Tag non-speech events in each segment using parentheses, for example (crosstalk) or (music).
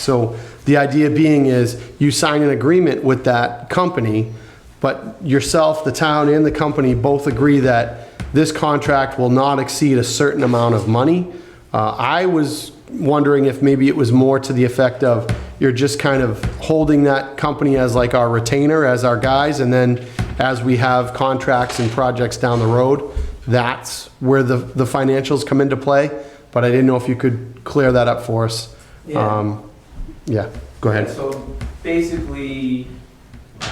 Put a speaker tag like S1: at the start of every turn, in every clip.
S1: So the idea being is you sign an agreement with that company, but yourself, the town, and the company both agree that this contract will not exceed a certain amount of money. Uh, I was wondering if maybe it was more to the effect of you're just kind of holding that company as like our retainer, as our guys, and then as we have contracts and projects down the road, that's where the, the financials come into play. But I didn't know if you could clear that up for us.
S2: Yeah.
S1: Um, yeah, go
S2: Yeah,
S1: ahead.
S2: So basically,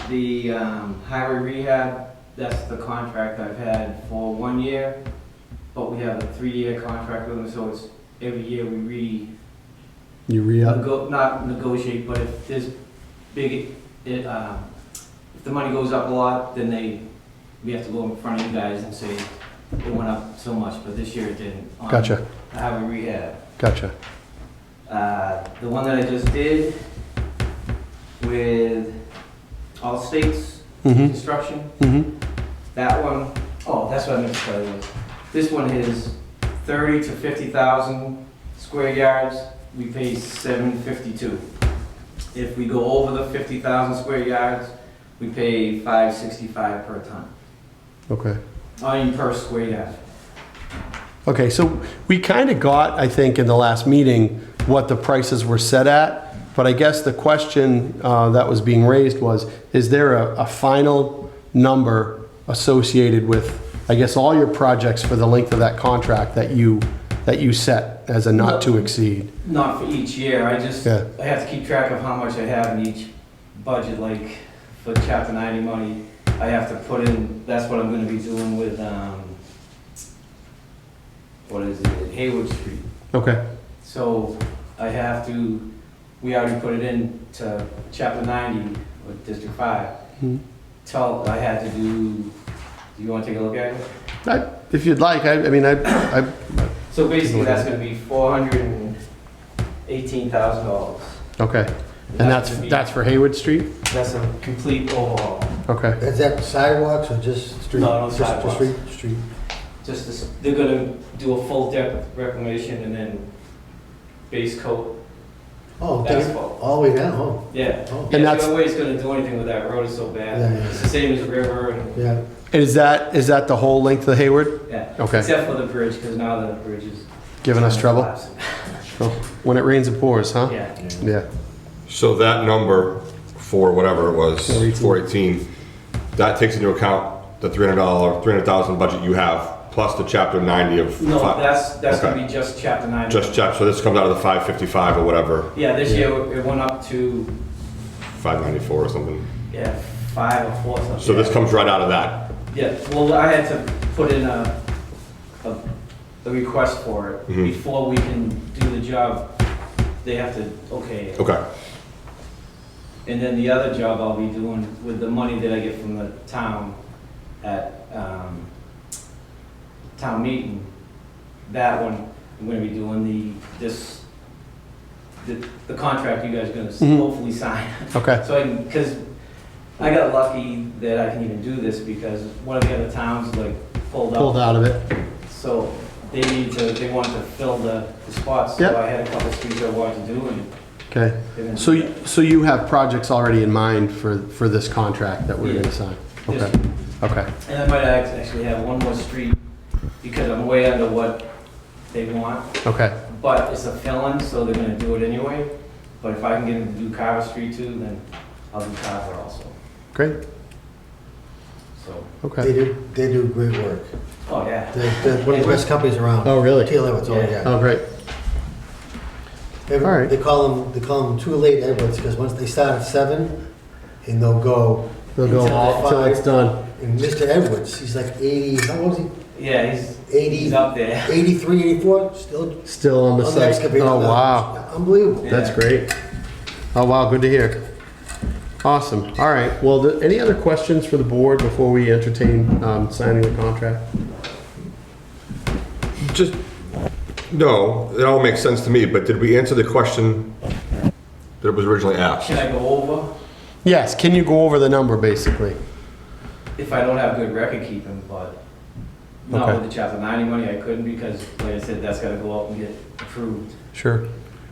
S2: the um, highway rehab, that's the contract I've had for one year, but we have a three-year contract with them, so it's every year we re,
S1: You re up?
S2: nego- not negotiate, but if there's big, it, uh, if the money goes up a lot, then they, we have to go in front of you guys and say, it went up so much, but this year it didn't. on
S1: Gotcha,
S2: the Highway rehab.
S1: gotcha.
S2: Uh, the one that I just did with all states
S1: Mm-hmm,
S2: construction,
S1: mm-hmm,
S2: that one, oh, that's what I meant to tell you. This one is thirty to fifty thousand square yards, we pay seven fifty-two. If we go over the fifty thousand square yards, we pay five sixty-five per ton,
S1: okay.
S2: I mean, per square yard.
S1: Okay, so we kind of got, I think, in the last meeting, what the prices were set at. But I guess the question uh, that was being raised was, is there a, a final number associated with, I guess, all your projects for the length of that contract that you, that you set as a not to exceed?
S2: Not for each year, I just,
S1: Yeah.
S2: I have to keep track of how much I have in each budget, like for chapter ninety money, I have to put in, that's what I'm gonna be doing with, um, what is it, Haywood Street.
S1: Okay,
S2: So I have to, we already put it in to chapter ninety, or district five.
S1: Hmm.
S2: Tell, I had to do, do you wanna take a look at it?
S1: I- if you'd like, I, I mean, I, I,
S2: So basically, that's gonna be four hundred and eighteen thousand dollars.
S1: okay. And that's, that's for Haywood Street?
S2: That's a complete overhaul,
S1: Okay,
S3: Is that sidewalks or just street?
S2: No, no
S3: Just- just
S2: sidewalks.
S3: Street, street.
S2: just this, they're gonna do a full depth reclamation and then base coat
S3: Oh, okay.
S2: asphalt.
S3: all the way down, oh,
S2: Yeah.
S3: oh,
S1: And
S2: Yeah,
S1: that's-
S2: the only way it's gonna do anything with that road is so bad.
S3: Yeah.
S2: It's the same as the river and,
S3: yeah.
S1: is that, is that the whole length of Hayward?
S2: yeah.
S1: Okay,
S2: Except for the bridge, because now the bridge is.
S1: giving us trouble?
S2: collapsing.
S1: When it rains, it pours, huh?
S2: Yeah.
S1: Yeah,
S4: So that number for whatever it was,
S1: 418.
S4: 418, that takes into account the $300, $300,000 budget you have, plus the chapter 90 of.
S2: No,
S4: fi-
S2: that's, that's
S4: Okay.
S2: gonna be just chapter nine.
S4: Just chapter, so this comes out of the 555 or whatever,
S2: Yeah, this year it went up to,
S4: 594 or something.
S2: yeah, five or four something.
S4: So this comes right out of that.
S2: Yeah, well, I had to put in a, a, a request for it.
S4: Mhm.
S2: Before we can do the job, they have to, okay. it.
S4: Okay,
S2: And then the other job I'll be doing with the money that I get from the town at, um, town meeting, that one, I'm gonna be doing the, this, the, the contract you guys are gonna s-
S1: Mhm.
S2: hopefully sign. (laughs)
S1: okay,
S2: So I, because I got lucky that I can even do this because one of the other towns like pulled
S1: pulled out
S2: out.
S1: of it.
S2: So they need to, they wanted to fill the the spots,
S1: Yep.
S2: so I had a couple of streets I wanted to do and.
S1: Okay,
S2: they didn't
S1: so,
S2: do
S1: you- so you have projects already in mind for, for this contract that we're
S2: Yeah.
S1: gonna sign?
S2: that.
S1: Okay,
S2: Just-
S1: okay,
S2: And I might act- actually have one more street because I'm way under what they want,
S1: okay,
S2: but it's a fill-in, so they're gonna do it anyway. But if I can get them to do Carver Street too, then I'll do Carver also,
S1: great,
S2: so,
S3: They
S1: okay.
S3: do, they do great work.
S2: oh, yeah.
S3: They're, they're one of the best companies around.
S1: Oh, really?
S3: Teal Edwards, oh,
S2: Yeah.
S3: yeah.
S1: Oh, great,
S3: Every-
S1: all right.
S3: They call them, they call them too late Edwards, because once they start at seven, and they'll go,
S1: they'll go all, till it's done.
S3: and Mr. Edwards, he's like eighty, how old is
S2: Yeah, he's, he's
S3: he? Eighty,
S2: up there.
S3: eighty-three, eighty-four, still
S1: Still on the site.
S3: unexcavated.
S1: Oh, wow,
S3: Unbelievable.
S1: that's
S2: Yeah.
S1: great. Oh, wow, good to hear. Awesome, all right, well, th- any other questions for the board before we entertain, um, signing the contract?
S4: just, no, it all makes sense to me, but did we answer the question that was originally asked?
S2: Can I go over?
S1: Yes, can you go over the number, basically?
S2: if I don't have good record keeping, but not
S1: Okay.
S2: with the chapter ninety money, I couldn't because, like I said, that's gotta go up and get approved.
S1: Sure.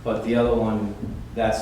S2: But the other one, that's